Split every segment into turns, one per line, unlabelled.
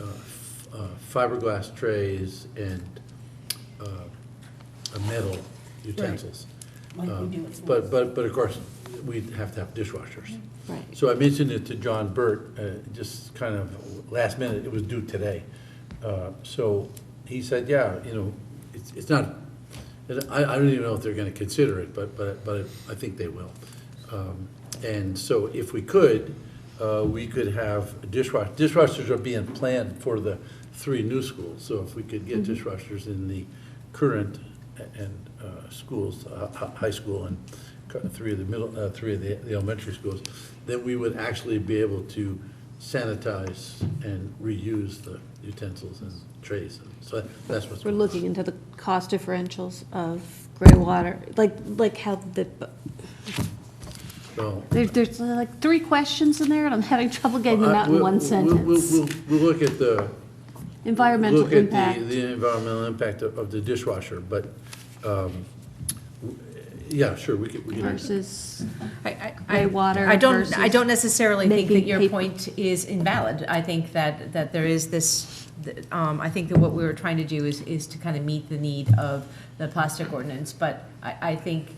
uh, f- uh, fiberglass trays and uh, uh, metal utensils.
Like we
Um,
do at schools.
But, but, but of course, we'd have to have dishwashers.
Right.
So I mentioned it to John Burt, uh, just kind of last minute, it was due today. Uh, So he said, yeah, you know, it's, it's not, and I, I don't even know if they're gonna consider it, but, but, but I think they will. Um, And so if we could, uh, we could have dishwashers, dishwashers are being planned for the three new schools. So if we could
Mm-hmm.
get dishwashers in the current a- and uh, schools, uh, hi- high school and kind of three of the middle, uh, three of the the elementary schools, then we would actually be able to sanitize and reuse the utensils and trays. So that's what's.
We're looking into the cost differentials of gray water, like, like how the,
So-
there- there's like three questions in there, and I'm having trouble getting them
Uh,
out in
we'll-
one
we'll- we'll-
sentence.
We'll, we'll look at the.
Environmental
Look at the,
impact.
the environmental impact of of the dishwasher, but, um, w- yeah, sure, we could, we could.
Versus,
I- I-
Gray
I-
water
I don't,
versus
I don't necessarily think that
making
your
paper.
point is invalid. I think that, that there is this, th- um, I think that what we were trying to do is, is to kind of meet the need of the plastic ordinance. But I, I think,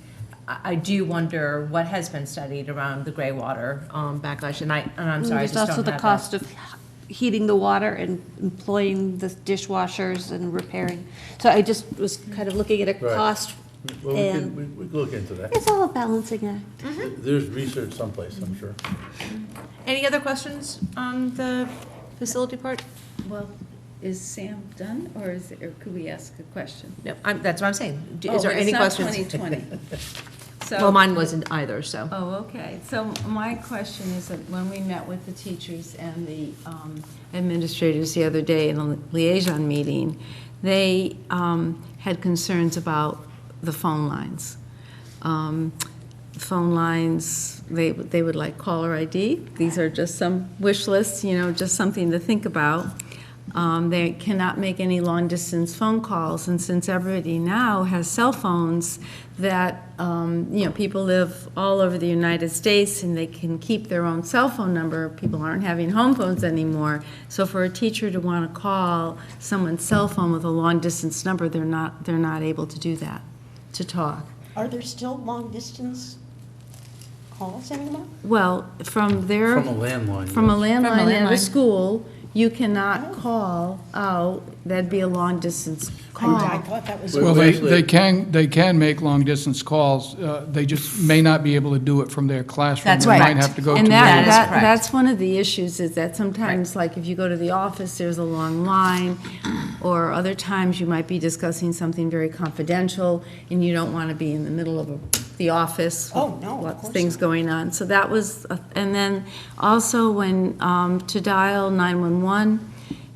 I, I do wonder what has been studied around the gray water um, backlash. And I, and I'm sorry, I just
there's Mm,
don't
also the
have that.
cost of heating the water and employing the dishwashers and repairing. So I just was kind of looking at a
Right.
cost,
Well, we could,
And- Mm-hmm.
we we could look into that.
it's all a balancing act.
There's research someplace, I'm sure.
Any other questions on the facility part?
Well, is Sam done, or is, or could we ask a question?
No, I'm, that's what I'm saying. Do- Is
Oh,
there
but
any questions?
It's not 2020. So-
Well, mine wasn't either, so.
Oh, okay. So my question is that when we met with the teachers and the um, administrators the other day in a liaison meeting, they um, had concerns about the phone lines. Um, Phone lines, they, they would like caller ID. These are just some wish lists, you know, just something to think about. Um, They cannot make any long-distance phone calls, and since everybody now has cell phones, that, um, you know, people live all over the United States and they can keep their own cell phone number, people aren't having home phones anymore. So for a teacher to want to call someone's cell phone with a long-distance number, they're not, they're not able to do that, to talk.
Are there still long-distance calls anymore?
Well, from their.
From a landline,
From a
yes.
landline in the
landline.
school, you cannot call out, that'd be a long-distance call.
I thought that was.
Well,
Well, they,
actually-
they can, they can make long-distance calls, uh, they just may not be able to do it from their classroom.
That's
They
correct.
might have to go to.
And that,
another-
that,
correct.
that's one of the issues, is that sometimes, like, if you go to the office, there's a long line, or other times you might be discussing something very confidential, and you don't want to be in the middle of a- the office. with
Oh, no, of
lots
course
Things going on, so that was, a- and then also when, um, to dial nine-one-one,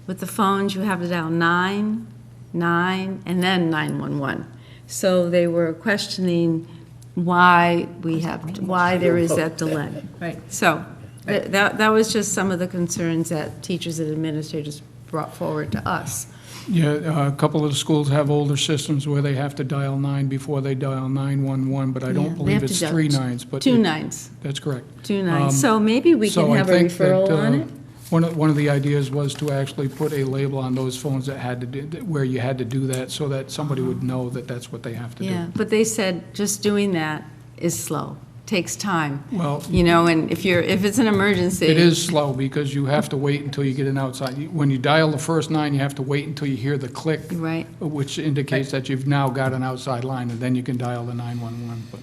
with the phones, you have to dial nine, nine, and then nine-one-one. So they were questioning why we have, why there is that delay.
Right.
So, th- that, that was just some of the concerns that teachers and administrators brought forward to us.
Yeah, uh, a couple of the schools have older systems where they have to dial nine before they dial nine-one-one, but I
Yeah,
don't
they
believe
have to
it's
dial
three
t-
nines, but.
Two
it-
nines,
That's correct.
two
Um,
nines. So maybe we
So
can
I
have a
think that,
referral on
uh,
it?
One of, one of the ideas was to actually put a label on those phones that had to, do that- where you had to do that, so that somebody would know that that's what they have to do.
Yeah, but they said just doing that is slow, takes time.
Well-
You know, and if you're, if it's an emergency.
It is slow because you have to wait until you get an outside. You- When you dial the first nine, you have to wait until you hear the click.
Right.
Which indicates that you've now got an outside line, and then you can dial the 911. But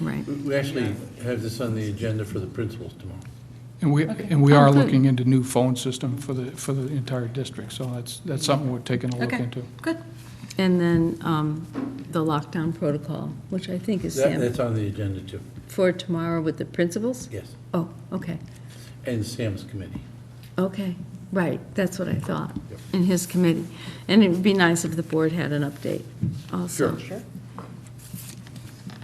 Right.
We- We actually have this on the agenda for the principals tomorrow.
And we, and we
Oh,
are
good.
looking into new phone system for the, for the entire district, so that's, that's something we're taking a look
Okay.
into.
Good.
And then, um, the lockdown protocol, which I think is
That,
Sam,
that's on the agenda too,
for tomorrow with the principals?
yes,
Oh, okay.
and Sam's committee.
Okay, right, that's what I thought,
Yep.
in his committee. And it would be nice if the board had an update also.
Sure.
Sure.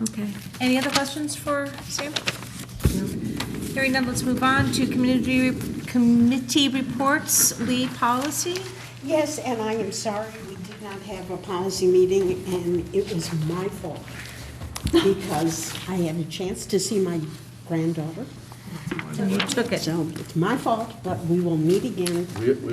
Okay.
Any other questions for Sam? Hearing none, let's move on to community, committee reports, lead policy.
Yes, and I am sorry we did not have a policy meeting, and it was my fault. Because I had a chance to see my granddaughter,
You took it.
so it's my fault, but we will meet again
We,